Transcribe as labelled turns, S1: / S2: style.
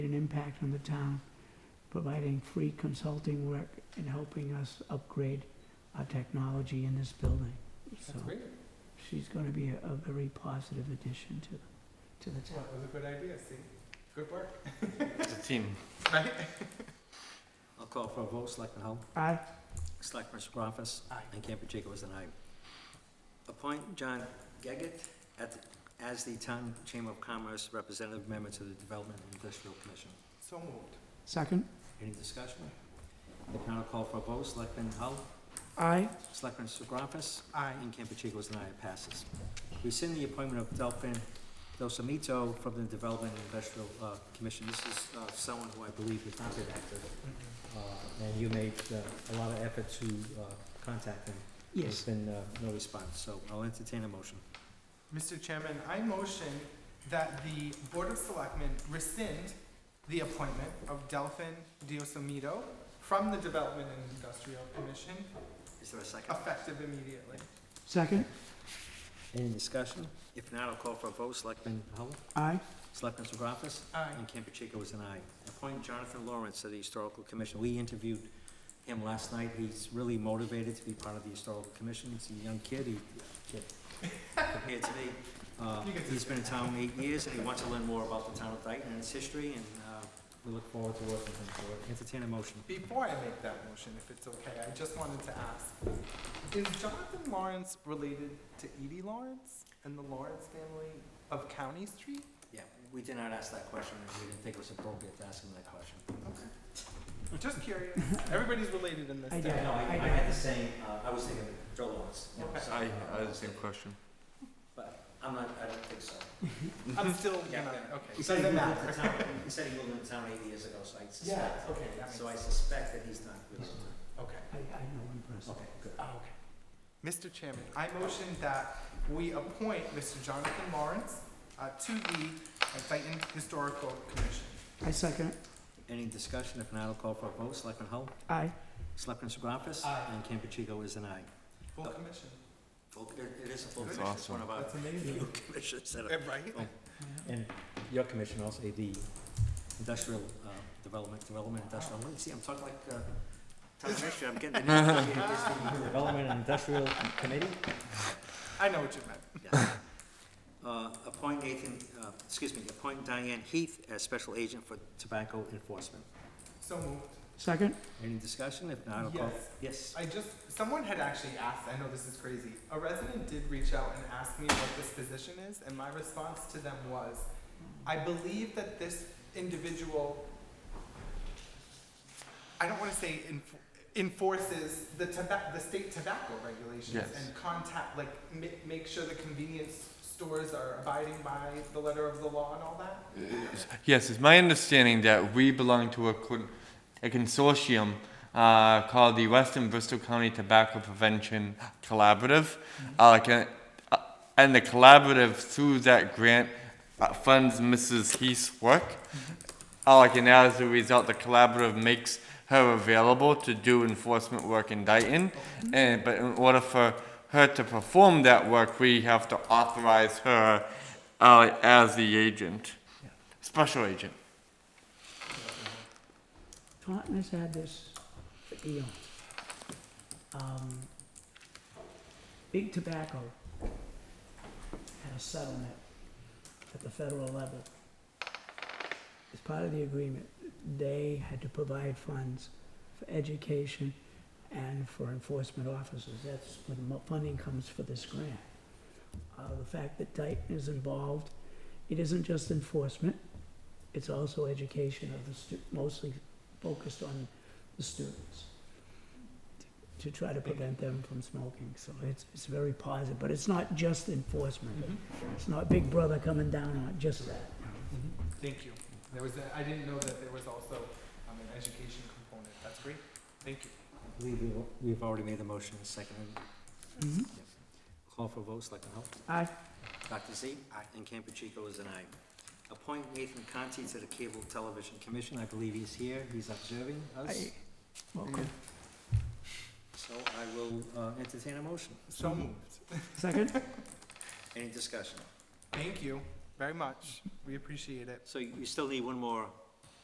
S1: impact on the town, providing free consulting work and helping us upgrade our technology in this building. So
S2: That's great.
S1: she's gonna be a, a very positive addition to, to the town.
S2: That was a good idea, Steve. Good work.
S3: It's a team.
S2: Right?
S4: I'll call for a vote, Selectman Hull,
S1: Aye.
S4: Selectman Segravas,
S2: Aye.
S4: and Camp Pacheco is an aye. Appoint John Gaggett at, as the Town Chamber of Commerce Representative Member to the Development and Industrial Commission.
S2: So moved.
S1: Second?
S4: Any discussion? If not, I'll call for a vote, Selectman Hull,
S1: Aye.
S4: Selectman Segravas,
S2: Aye.
S4: and Camp Pacheco is an aye, It passes. Rescind the appointment of Delphin Dosamito from the Development and Industrial uh, Commission. This is uh, someone who I believe has not been active, uh, and you made uh, a lot of effort to uh, contact him. There's
S1: Yes.
S4: been uh, no response, so I'll entertain a motion.
S2: Mr. Chairman, I motion that the Board of Selectmen rescind the appointment of Delphin Diosomito from the Development and Industrial Commission
S4: Is there a second?
S2: effective immediately.
S1: Second?
S4: Any discussion? If not, I'll call for a vote. Selectman Hull?
S1: Aye.
S4: Selectman Segravas?
S2: Aye.
S4: And Campuchico is an aye. Appoint Jonathan Lawrence to the Historical Commission. We interviewed him last night. He's really motivated to be part of the Historical Commission. He's a young kid, he, kid, compared to me. Uh,
S2: You can
S4: He's been in town eight years, and he wants to learn more about the town of Dayton and its history, and uh, we look forward to working with him. So entertain a motion.
S2: Before I make that motion, if it's okay, I just wanted to ask, is Jonathan Lawrence related to Edie Lawrence and the Lawrence family of County Street?
S4: Yeah, we did not ask that question, and we didn't think it was appropriate to ask him that question.
S2: Okay. Just curious. Everybody's related in this
S1: I
S2: town.
S1: don't
S4: No, I I had the same, uh, I was thinking of Joe Lawrence. you know, so-
S3: I, I had the same question.
S4: But I'm not, I don't think so.
S2: I'm still
S4: Yeah.
S2: gonna, okay.
S4: He said he moved into town, he said he moved into town eight years ago, so I suspect,
S2: okay, that
S4: so I suspect that he's not related.
S2: Okay.
S1: I, I know one person.
S4: Okay, good.
S2: Oh, okay. Mr. Chairman, I motion that we appoint Mr. Jonathan Lawrence uh, to the Dayton Historical Commission.
S1: I second.
S4: Any discussion? If not, I'll call for a vote. Selectman Hull?
S1: Aye.
S4: Selectman Segravas?
S2: Aye.
S4: And Campuchico is an aye.
S2: Full commission.
S4: Full- It it is a full
S2: That's
S4: commission, it's one of our
S2: That's amazing.
S4: few commissions that are.
S2: Eh, Right?
S4: And your commission also, the industrial uh, development, development industrial, let me see, I'm talking like uh, town administrator, I'm getting the name. It's the Development and Industrial Committee?
S2: I know what you meant.
S4: Yes. Uh, Appoint Nathan, uh, excuse me, appoint Diane Heath as special agent for tobacco enforcement.
S2: So moved.
S1: Second?
S4: Any discussion? If not, I'll call.
S2: Yes.
S4: Yes.
S2: I just, someone had actually asked, I know this is crazy, a resident did reach out and ask me what this position is, and my response to them was, I believe that this individual, I don't wanna say enf- enforces the tobacco, the state tobacco regulations
S3: Yes.
S2: and contact, like, ma- make sure the convenience stores are abiding by the letter of the law and all that?
S3: Yes, it's my understanding that we belong to a, co- a consortium uh, called the Western Bristol County Tobacco Prevention Collaborative. Uh, like a, uh, and the collaborative, through that grant, uh, funds Mrs. Heath's work. Uh, like, and as a result, the collaborative makes her available to do enforcement work in Dayton. And, but in order for her to perform that work, we have to authorize her uh, as the agent. Special agent.
S1: Taunton has had this for eons. Um, Big Tobacco had a settlement at the federal level. As part of the agreement, they had to provide funds for education and for enforcement officers. That's when mo- funding comes for this grant. Uh, the fact that Dayton is involved, it isn't just enforcement, it's also education of the stu- mostly focused on the students to try to prevent them from smoking. So it's, it's very positive, but it's not just enforcement. It's not Big Brother coming down on just that.
S2: Thank you. There was, a- I didn't know that there was also, um, an education component. That's great. Thank you.
S4: I believe we- we've already made the motion and seconded. Yep. Call for votes, Selectman Hull?
S1: Aye.
S4: Dr. Z? Aye. And Campuchico is an aye. Appoint Nathan Conti to the Cable Television Commission. I believe he's here. He's observing us.
S1: Aye. Welcome.
S4: So I will uh, entertain a motion.
S2: So moved.
S1: Second?
S4: Any discussion?
S2: Thank you very much. We appreciate it.
S4: So you you still need one more